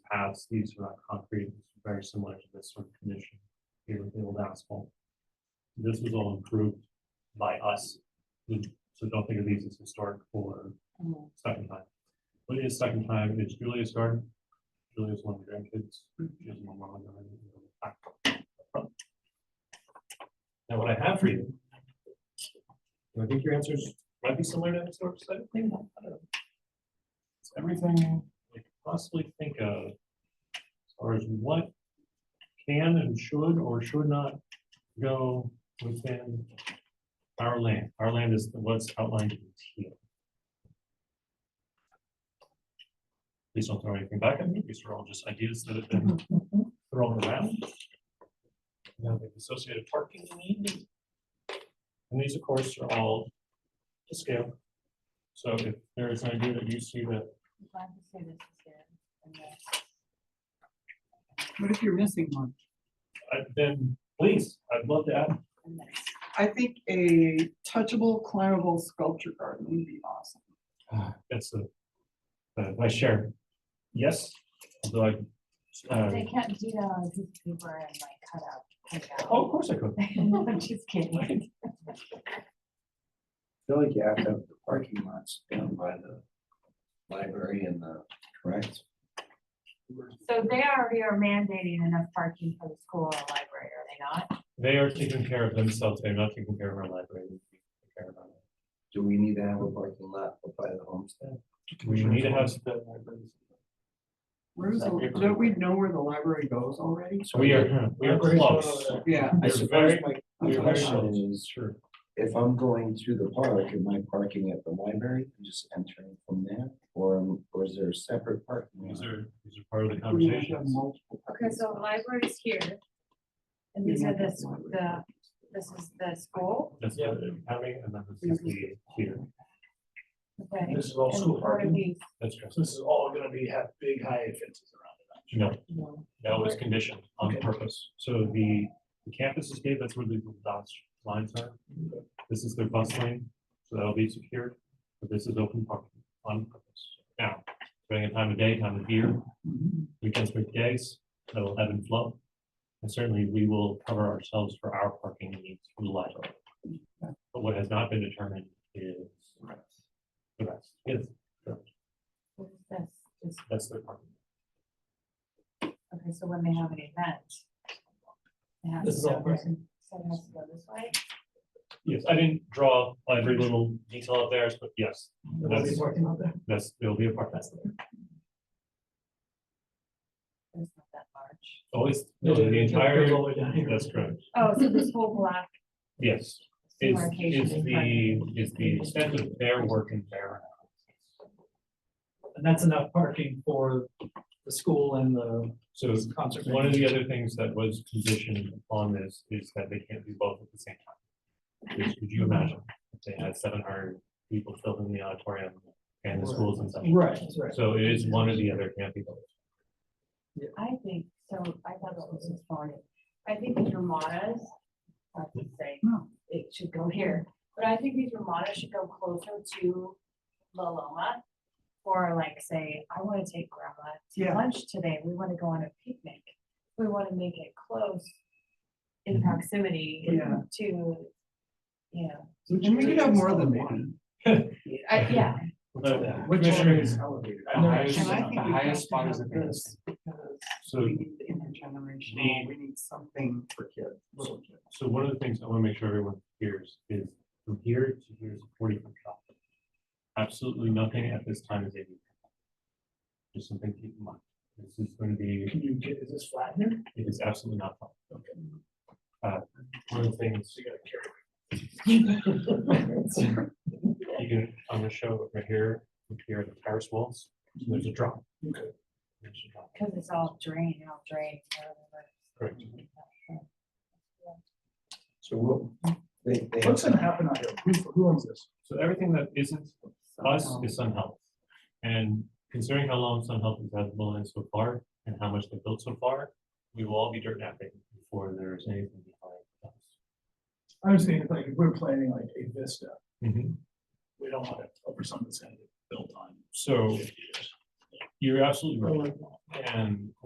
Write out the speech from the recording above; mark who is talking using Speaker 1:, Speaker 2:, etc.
Speaker 1: paths, these are not concrete, very similar to this sort of condition here with the old asphalt. This was all improved by us, so don't think of these as historic or
Speaker 2: Oh,
Speaker 1: second time. What is second time is Julia's garden. Julia's one of the grandkids. She has one mom and dad, and the back up front. Now, what I have for you. and I think your answers might be similar to historic site thing. I don't know. It's everything I could possibly think of. As far as what can and should or should not go within our land. Our land is what's outlined in here. Please don't throw anything back at me. These are all just ideas that have been thrown around. Now the associated parking need. And these, of course, are all to scale. So if there is an idea that you see that,
Speaker 2: I'm glad to see this is there. and that-
Speaker 3: What if you're missing one?
Speaker 1: I- then please, I'd love to add.
Speaker 2: and that's-
Speaker 3: I think a touchable, climbable sculpture garden would be awesome.
Speaker 1: Ah, That's a, uh, my share. Yes, although I. uh,
Speaker 2: They kept Gina on a piece of paper and like cut out. print out.
Speaker 1: Oh, of course I could.
Speaker 2: I'm just kidding.
Speaker 4: I feel like you have to have the parking lots down by the library and the, correct?
Speaker 2: So they already are mandating enough parking for the school or library, are they not?
Speaker 1: They are taking care of themselves. They're not taking care of our library. We take care of our-
Speaker 4: Do we need to have a parking lot up by the homestead?
Speaker 1: We need to have.
Speaker 3: Where's the,
Speaker 1: That'd be
Speaker 3: don't we know where the library goes already?
Speaker 1: So we are, we are close.
Speaker 3: Yeah.
Speaker 4: I
Speaker 1: You're
Speaker 4: suppose
Speaker 1: very-
Speaker 4: my
Speaker 1: you're very
Speaker 4: my question
Speaker 1: close.
Speaker 4: is,
Speaker 1: Sure.
Speaker 4: if I'm going to the park, am I parking at the library and just entering from there? Or, am- or is there a separate parking lot?
Speaker 1: These are, these are part of the
Speaker 3: We have to have
Speaker 1: conversation.
Speaker 3: multiple parking
Speaker 2: Okay, so
Speaker 3: spots.
Speaker 2: library's here. And
Speaker 3: We
Speaker 2: these are
Speaker 3: have to
Speaker 2: the,
Speaker 3: have
Speaker 2: s-
Speaker 3: library.
Speaker 2: the, this is the school.
Speaker 1: That's the academy and then this is the here.
Speaker 2: Okay.
Speaker 5: This is all
Speaker 2: And
Speaker 5: school
Speaker 2: part of
Speaker 5: parking,
Speaker 2: these,
Speaker 1: That's correct.
Speaker 5: so this is all gonna be, have big high fences around it.
Speaker 1: No,
Speaker 2: you know,
Speaker 1: that was conditioned on
Speaker 5: Okay.
Speaker 1: purpose. So the the campus is gate, that's where the dots lines are. This is their bus lane, so that'll be secured, but this is open parking on purpose. Now, during a time of day, time of year, Mm-hmm.
Speaker 3: Mhm.
Speaker 1: weekends, weekdays, that'll ebb and flow. And certainly, we will cover ourselves for our parking needs from the library. But what has not been determined is the rest. Yes,
Speaker 2: what is this? This-
Speaker 1: that's their parking.
Speaker 2: Okay, so when they have an event. they have
Speaker 1: This
Speaker 2: to
Speaker 1: is all
Speaker 2: go
Speaker 1: part-
Speaker 2: this- So it has to go this way.
Speaker 1: Yes, I didn't draw every little detail of theirs, but yes,
Speaker 5: Nobody's
Speaker 1: That's-
Speaker 5: parking out there.
Speaker 1: that's, there'll be a park that's there.
Speaker 2: It's not that large.
Speaker 1: Always, no, Oh, the entire,
Speaker 5: Goes all the way down here.
Speaker 1: that's correct.
Speaker 2: Oh, so this whole block
Speaker 1: Yes, is,
Speaker 2: demarcation
Speaker 1: is
Speaker 2: is
Speaker 1: the, is the extent of their work and their.
Speaker 5: And that's enough parking for the school and the
Speaker 1: So
Speaker 5: concert.
Speaker 1: One of the other things that was conditioned on this is that they can't do both at the same time. Which could you imagine if they had seven hundred people filled in the auditorium and the schools and stuff?
Speaker 5: Right, that's right.
Speaker 1: So it is one or the other, it can't be both.
Speaker 2: I think, so I thought that was just funny. I think these Ramadas, I would say,
Speaker 3: No.
Speaker 2: it should go here, but I think these Ramadas should go closer to La Loma. Or like say, I wanna take grandma to
Speaker 3: Yeah.
Speaker 2: lunch today, we wanna go on a picnic, we wanna make it close in proximity
Speaker 3: Mm-hmm. Yeah.
Speaker 2: to, you know,
Speaker 3: And we could have more than one.
Speaker 2: I, Uh, yeah,
Speaker 1: But
Speaker 5: Which
Speaker 1: Commissioner,
Speaker 5: one is elevated? I've never
Speaker 3: And
Speaker 5: actually
Speaker 3: I
Speaker 5: been out
Speaker 3: think
Speaker 5: there.
Speaker 3: we have to have this because
Speaker 1: So,
Speaker 3: we need the intergenerational, we need something for kids, little kids.
Speaker 1: so one of the things I want to make sure everyone hears is from here to here is forty foot drop. Absolutely nothing at this time is eighty. Just something to keep in mind. This is going to be
Speaker 5: Can you get, is this flat here?
Speaker 1: It is absolutely not fun.
Speaker 5: Okay.
Speaker 1: Uh, One of the things,
Speaker 5: So you gotta carry.
Speaker 1: you can, I'm gonna show right here, up here are the terrace walls, so there's a drop.
Speaker 5: Okay.
Speaker 1: There's a drop,
Speaker 2: cause it's all drained, it all drains.
Speaker 1: Correct.
Speaker 4: So what? They, they.
Speaker 5: What's gonna happen out here? Who, who owns this?
Speaker 1: So everything that isn't us
Speaker 3: Somehow.
Speaker 1: is Sun Health. And considering how long Sun Health has had the land so far and how much they've built so far, we will all be dirt napping before there's anything behind
Speaker 5: I was thinking, like, if we're planning like a Vista,
Speaker 1: us.
Speaker 5: we don't want it over something that's gonna be built on
Speaker 1: So
Speaker 5: fifty years.
Speaker 1: You're absolutely right. And